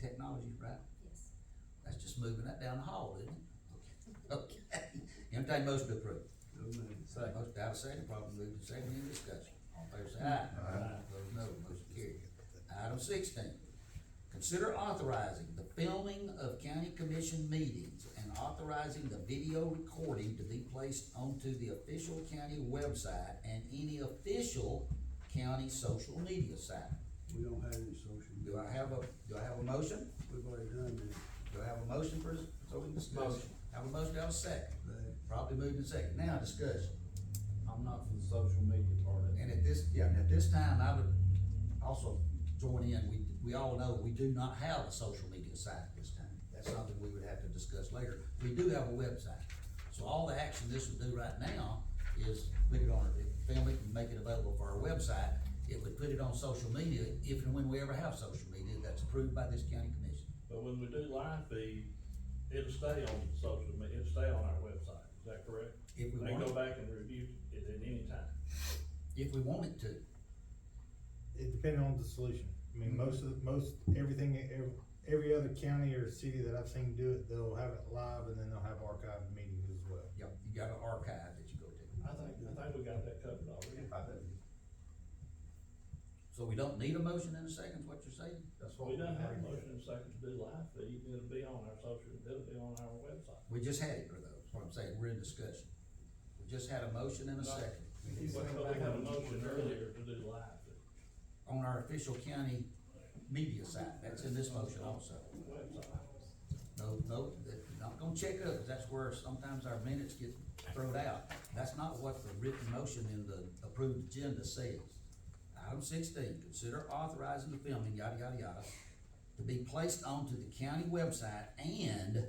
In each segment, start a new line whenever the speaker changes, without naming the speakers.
technology, right?
Yes.
That's just moving that down the hall, isn't it? Okay, entertain motion to approve.
So moved.
Second. Motion out of second, probably moved in second, any discussion? All in favor say aye. Aye. Those no, motion carried. Item sixteen, consider authorizing the filming of county commission meetings and authorizing the video recording to be placed onto the official county website and any official county social media site.
We don't have any social
Do
media.
I have a, do I have a motion?
We've already done that.
Do I have a motion for, so we can discuss?
Motion.
Have a motion, have a second.
Right.
Probably moved in second. Now discussion.
I'm not for the social media part of it.
And at this, yeah, and at this time, I would also join in, we, we all know, we do not have a social media site at this time. That's something we would have to discuss later. We do have a website. So all the action this would do right now is put it on, film it and make it available for our website. It would put it on social media, if and when we ever have social media, that's approved by this county commission.
But when we do live feed, it'll stay on social media, it'll stay on our website, is that correct?
If we
They
want
go
it,
back and review it at any time.
if we want it to.
It depended on the solution. I mean, most of, most, everything, every, every other county or city that I've seen do it, they'll have it live and then they'll have archived meetings as well.
Yeah, you got an archive that you go to.
I think, I think we got that covered already.
So we don't need a motion in a second, is what you're saying? That's what
We done have a
arguing.
motion and second to do live feed, it'll be on our social, it'll be on our website.
We just had it for those, what I'm saying, we're in discussion. We just had a motion and a second
But but we had a motion earlier to do live feed,
on our official county media site, that's in this motion also.
website.
No, no, that- not gonna check us, that's where sometimes our minutes get thrown out. That's not what the written motion in the approved agenda says. Item sixteen, consider authorizing the filming, yada, yada, yada, to be placed onto the county website and,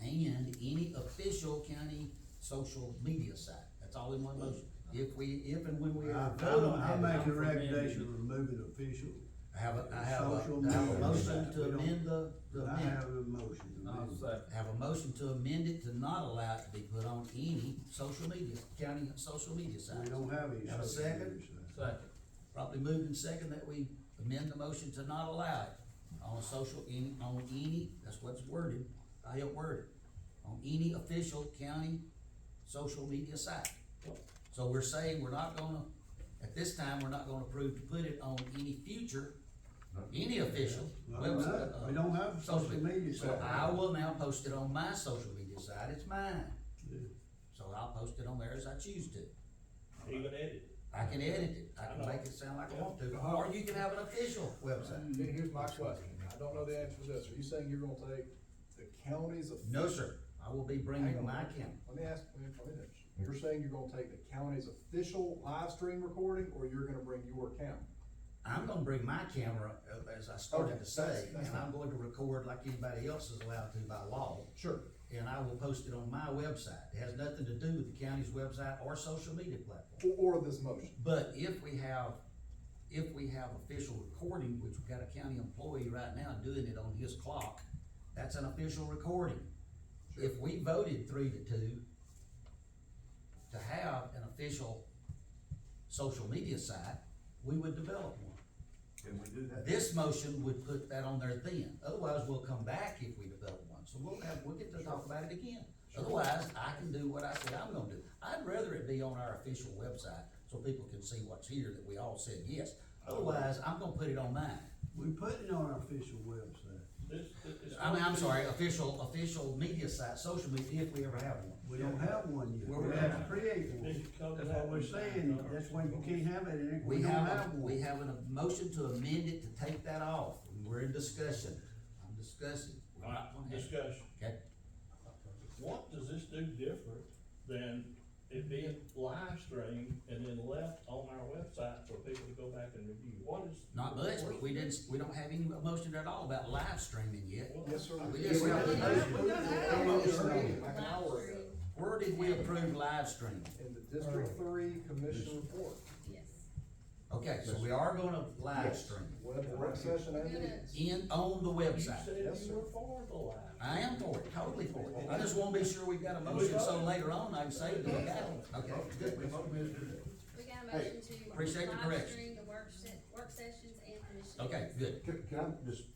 and any official county social media site. That's all in one motion. If we, if and when we
I,
are voting on
I'm
that.
making a
I'm for amending.
recommendation removing official.
I have a, I have a,
Social
I have a
media
motion
site,
to
we don't-
amend the, the
I
amendment.
have a motion to
I'll
amend.
second.
Have a motion to amend it to not allow it to be put on any social media, county social media
We
sites.
don't have any.
Have a
social
second?
media sites.
Second.
Probably moved in second that we amend the motion to not allow it on social, any, on any, that's what's worded, I helped word it, on any official county social media site. So we're saying we're not gonna, at this time, we're not gonna approve to put it on any future, any official.
No, no,
website,
we don't have a social media
So
site.
I will now post it on my social media site, it's mine.
Yeah.
So I'll post it on there as I choose to.
Even edit.
I can edit it, I can make it sound like I want to,
Uh-huh.
or you can have an official website.
Then here's my question, I don't know the answer to this, are you saying you're gonna take the county's? of-
No, sir, I will be
Hang
bringing
on.
my camera.
Let me ask, let me let me finish, you're saying you're gonna take the county's official live stream recording, or you're gonna bring your account?
I'm gonna bring my camera, uh, as I started
Okay,
to say,
that's- that's
and I'm going to record like anybody else is allowed to by law.
Sure.
And I will post it on my website. It has nothing to do with the county's website or social media platform.
Or, or this motion?
But if we have, if we have official recording, which we've got a county employee right now doing it on his clock, that's an official recording. If we voted three to two to have an official social media site, we would develop one.
Can we do that?
This motion would put that on there then, otherwise we'll come back if we develop one, so we'll have, we'll get to talk about it again. Otherwise, I can do what I said I'm gonna do, I'd rather it be on our official website, so people can see what's here, that we all said yes. Otherwise, I'm gonna put it on mine,
We put it on our official website.
This, this.
I mean, I'm sorry, official, official media site, social media, if we ever have one.
We don't have one yet.
Well, we
We have to create
This
one.
covers
That's what
that
we're
one.
saying. That's why you can't have it in it.
We
don't
have, a-
one.
we have a motion to amend it to take that off, we're in discussion, I'm discussing.
All right, discussion.
Okay,
What does this do different than it being live streamed and then left on our website for people to go back and review? What is?
Not much, but we didn't, we don't have any motion at all about live streaming yet.
Well,
Yes, sir.
We just-
we don't have- we don't have
Like
it.
an hour ago,
Where did we approve live streaming?
in the District Three Commission report,
Yes.
Okay, so we are gonna live stream
web, work session and meetings.
in, on the
You
website.
said
Yes,
you
sir.
were for the live.
I am for it, totally for it. I just wanna be sure we've got a motion, so later on I can say that we got it. Okay, good.
We got a motion to
appreciate the
live
correction.
stream the work se- work sessions and commission.
Okay,
meetings.
good.
Can, can I just